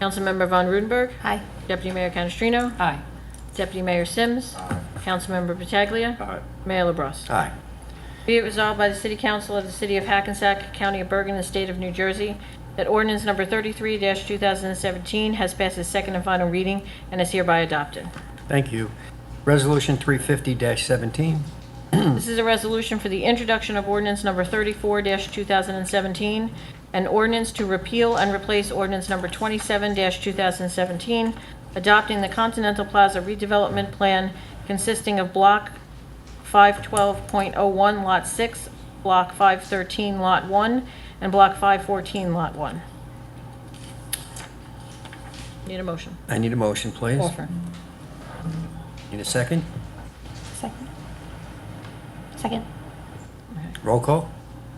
Councilmember Von Rudenberg. Aye. Deputy Mayor Canestrino. Aye. Deputy Mayor Sims. Councilmember Pataglia. Aye. Mayor LaBrus. Aye. Be it resolved by the City Council of the City of Hackensack, County of Bergen, and State of New Jersey that ordinance number 33-2017 has passed its second and final reading and is hereby adopted. Thank you. Resolution 350-17. This is a resolution for the introduction of ordinance number 34-2017, an ordinance to repeal and replace ordinance number 27-2017, adopting the Continental Plaza redevelopment plan consisting of Block 512.01, Lot 6, Block 513, Lot 1, and Block 514, Lot 1. Need a motion? I need a motion, please. Offer. Need a second? Second. Second. Roll call?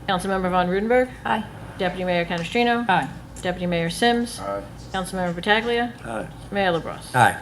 Councilmember Von Rudenberg. Aye. Deputy Mayor Canestrino. Aye. Deputy Mayor Sims. Councilmember Pataglia. Aye. Mayor LaBrus. Aye.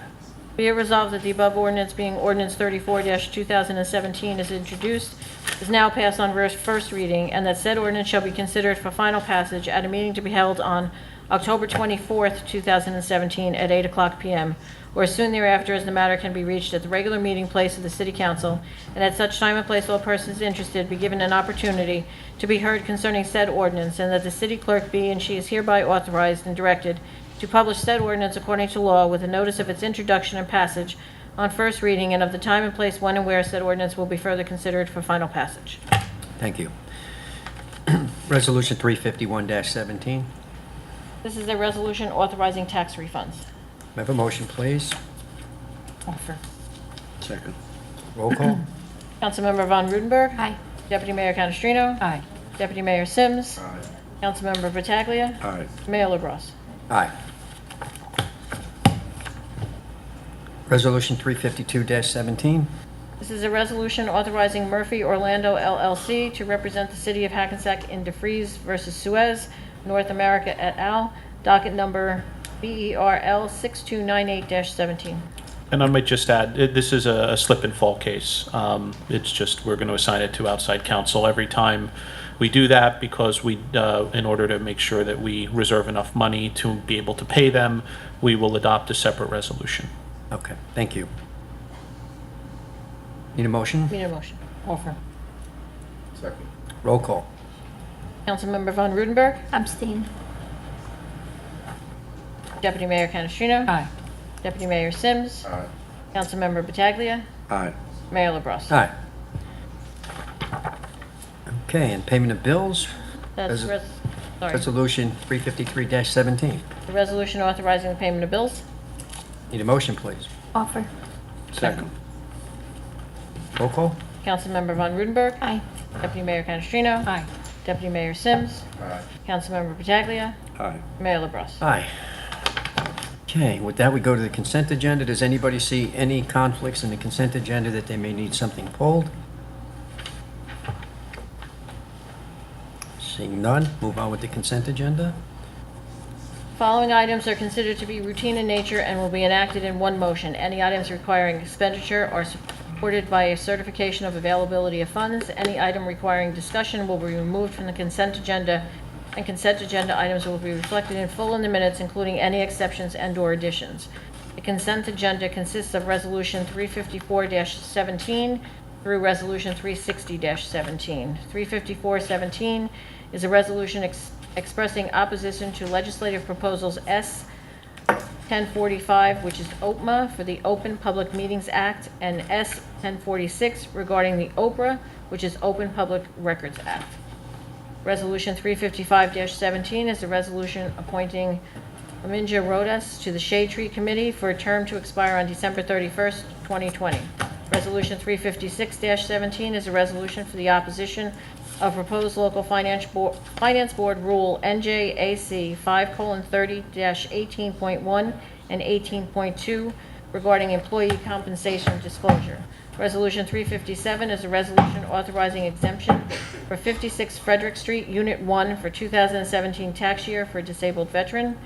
Be it resolved that the above ordinance being ordinance 34-2017 is introduced, is now passed on vers- first reading, and that said ordinance shall be considered for final passage at a meeting to be held on October 24th, 2017, at 8 o'clock p.m., or as soon thereafter as the matter can be reached at the regular meeting place of the City Council, and at such time and place all persons interested be given an opportunity to be heard concerning said ordinance, and that the city clerk be and she is hereby authorized and directed to publish said ordinance according to law with a notice of its introduction and passage on first reading and of the time and place when and where said ordinance will be further considered for final passage. Thank you. Resolution 351-17. May This is a resolution authorizing tax refunds. I have a motion, please? Offer. Second. Roll call? Councilmember Von Rudenberg. Aye. Deputy Mayor Canestrino. Aye. Deputy Mayor Sims. Councilmember Pataglia. Aye. Mayor LaBrus. Aye. Resolution 352-17. This is a resolution authorizing Murphy Orlando LLC to represent the city of Hackensack in DeFreeze versus Suez, North America et al., docket number E BERL 6298-17. And I might just add, i- this is a a slip and fall case. Um, It's just, we're going to assign it to outside counsel every time we do that because we, uh, in order to make sure that we reserve enough money to be able to pay them, we will adopt a separate resolution. Okay, thank you. Need a motion? Need a motion? Offer. Second. Roll call? Councilmember Von Rudenberg, Abstain. Deputy Mayor Canestrino. Aye. Deputy Mayor Sims. Aye. Councilmember Pataglia. Aye. Mayor LaBrus. Aye. Okay, and payment of bills, That's, Res- res- sorry, Resolution 353-17. the resolution authorizing the payment of bills. Need a motion, please? Offer. Second. Roll call? Councilmember Von Rudenberg, Aye. Deputy Mayor Canestrino. Aye. Deputy Mayor Sims. Aye. Councilmember Pataglia. Aye. Mayor LaBrus. Aye. Okay, with that, we go to the consent agenda. Does anybody see any conflicts in the consent agenda that they may need something pulled? Seeing none, move on with the consent agenda. Following items are considered to be routine in nature and will be enacted in one motion. Any items requiring expenditure are supported by a certification of availability of funds. Any item requiring discussion will be removed from the consent agenda, and consent agenda items will be reflected in full in the minutes, including any exceptions and/or additions. The consent agenda consists of Resolution 354-17 through Resolution 360-17. 354-17 is a resolution ex- expressing opposition to legislative proposals S. 1045, which is OPMA for the Open Public Meetings Act, and S. 1046 regarding the OPRA, which is Open Public Records Act. Resolution 355-17 is a resolution appointing Aminja Rodas to the Shade Tree Committee for a term to expire on December 31st, 2020. Resolution 356-17 is a resolution for the opposition of proposed local finance board, finance board rule NJAC 5:30-18.1 and 18.2 regarding employee compensation disclosure. Resolution 357 is a resolution authorizing exemption for 56 Frederick Street, Unit 1, for 2017 tax year for a disabled veteran.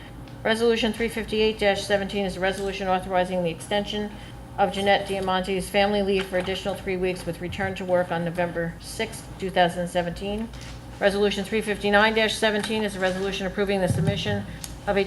Resolution 358-17 is a resolution authorizing the extension of Jeanette Diamante's family leave for additional three weeks with return to work on November 6, 2017. Resolution 359-17 is a resolution approving the submission of a